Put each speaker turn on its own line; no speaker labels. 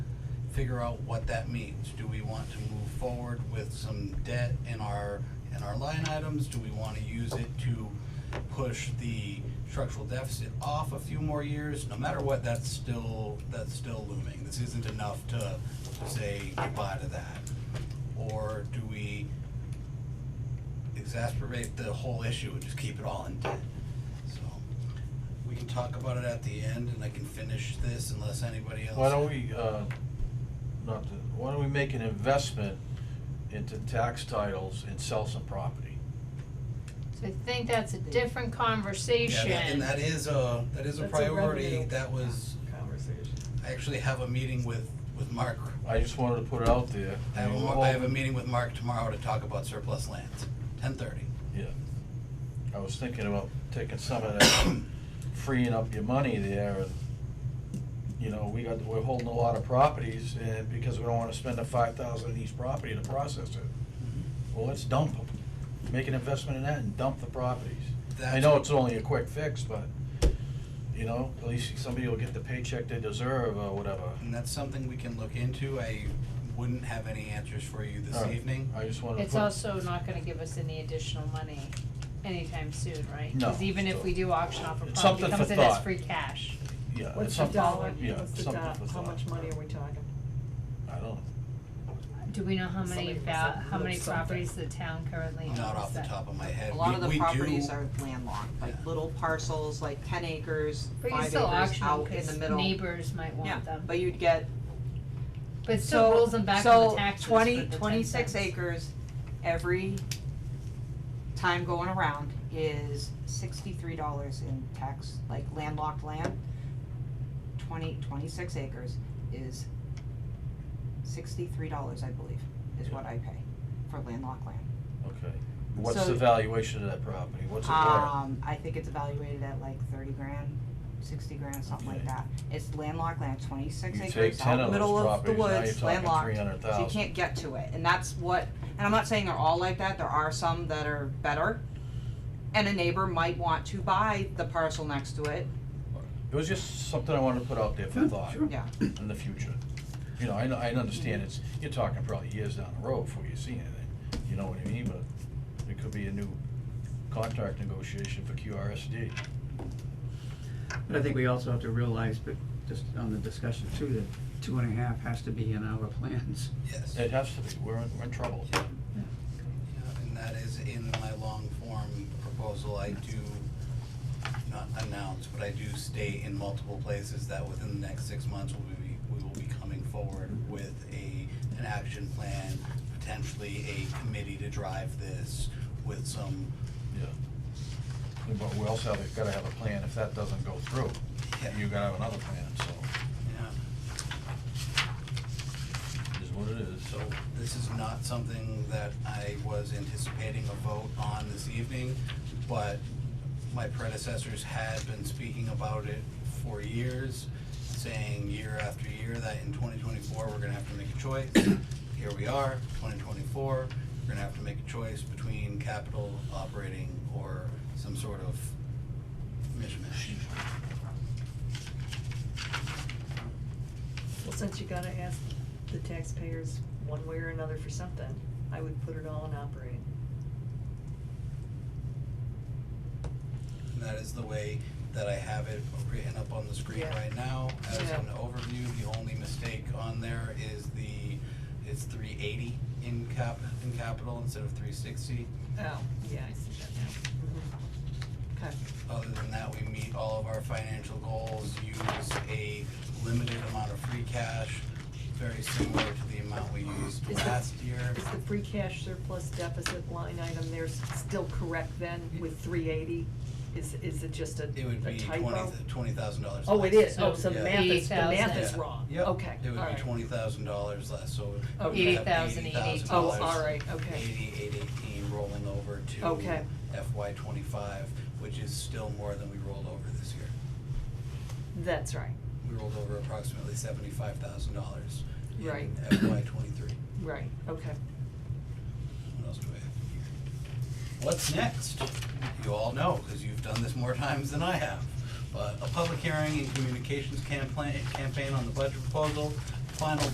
figure out what that means. Do we want to move forward with some debt in our, in our line items? Do we wanna use it to push the structural deficit off a few more years? No matter what, that's still, that's still looming. This isn't enough to say goodbye to that. Or do we exacerbate the whole issue and just keep it all in debt? So, we can talk about it at the end and I can finish this unless anybody else.
Why don't we, uh, not to, why don't we make an investment into tax titles and sell some property?
So I think that's a different conversation.
Yeah, that- and that is a, that is a
That's a
priority,
revenue.
that was,
Conversation.
I actually have a meeting with, with Mark.
I just wanted to put it out there.
I have, a
mean,
mar-
we're
I have a
hoping-
meeting with Mark tomorrow to talk about surplus lands, ten thirty.
Yeah. I was thinking about taking some of that, freeing up your money there and, you know, we got, we're holding a lot of properties and because we don't wanna spend the five thousand on each property to process it. Well, let's dump them. Make an investment in that and dump the properties. I know it's only a quick fix, but, you know, at least somebody will get the paycheck they deserve or whatever.
And that's something we can look into, I wouldn't have any answers for you this
All right,
evening.
I just wanted to put.
It's also not gonna give us any additional money anytime soon, right?
No.
Cause even if we do auction off a
It's
property,
something
it
for
comes in as
thought.
free cash.
Yeah. it's
What's the
something-
dollar,
yeah,
what's the
something
dollar,
for
how
thought.
much money are we talking?
I don't,
Do we know how many
Somebody was
val,
like,
how many
"Look, something."
properties the town currently owns
Not off the
that-
top of my head.
A lot
We-
of the
we do-
properties are landlocked, like
Yeah.
little parcels, like ten acres,
But you
five
still
acres
auction them
out in the
'cause
middle.
neighbors might
Yeah,
want them,
but you'd get,
but it still
so,
rolls them back to the
so
taxes for the
twenty,
10
twenty-six
cents.
acres every time going around is sixty-three dollars in tax, like landlocked land. Twenty, twenty-six acres is sixty-three dollars, I believe, is what I pay for landlocked land.
okay. What's
So-
the valuation of that property? What's it worth?
Um, I think it's evaluated at like thirty grand, sixty grand, something like
Okay.
that. It's landlocked land, twenty-six
You
acres,
take
out
10
in the
of
middle
those
of the
properties, now you're
woods, landlocked.
talking
So
300,000.
you can't get to it, and that's what, and I'm not saying they're all like that, there are some that are better. And a neighbor might want to buy the parcel next to it,
It was just something I wanted to put out there for thought
yeah,
in the future. You know, I, know- I understand it's, you're talking probably years down the road before you see anything, you know what I mean, but it could be a new contract negotiation for QRSD.
But I think we also have to realize, but just on the discussion too, that two and a half has to be in our plans.
Yes,
It has to be, we're in, we're in trouble.
Yeah, and that is in my long form proposal, I do, not announce, but I do state in multiple places that within the next six months, we'll be, we will be coming forward with a, an action plan, potentially a committee to drive this with some,
Yeah. But we also have, gotta have a plan, if that doesn't go through,
Yeah.
you gotta have another plan, so,
yeah,
it is what it is, so.
This is not something that I was anticipating a vote on this evening, but my predecessors had been speaking about it for years, saying year after year that in twenty twenty-four, we're gonna have to make a choice. Here we are, twenty twenty-four, we're gonna have to make a choice between capital, operating, or some sort of mishmash.
Well, since you gotta ask the taxpayers one way or another for something, I would put it all in operating.
And that is the way that I have it written up on the screen
Yeah.
right now. As
Yeah.
an overview, the only mistake on there is the, it's three eighty in cap, in capital instead of three sixty.
Oh, yeah, I see that now. Okay.
Other than that, we meet all of our financial goals, use a limited amount of free cash, very similar to the amount we used
Is it-
last year.
Is the free cash surplus deficit line item there s- still correct then with three eighty? Is, is it just a, a typo?
It would be twenty, twenty thousand dollars less.
Oh, it is, oh, so the
Yeah.
math is, the math is
Yeah.
wrong, okay,
Yep.
Oh, alright.
It would be twenty thousand dollars less, so. it would
Okay.
have
$80,000,
$80,000
Oh, alright, okay,
eighty, eight eighteen rolling over to
Okay.
FY twenty-five, which is still more than we rolled over this year.
that's right,
We rolled over approximately seventy-five thousand dollars
Right.
in FY twenty-three.
right, okay.
What else do I have here? What's next? You all know, because you've done this more times than I have. But a public hearing and communications campaign, campaign on the budget proposal, final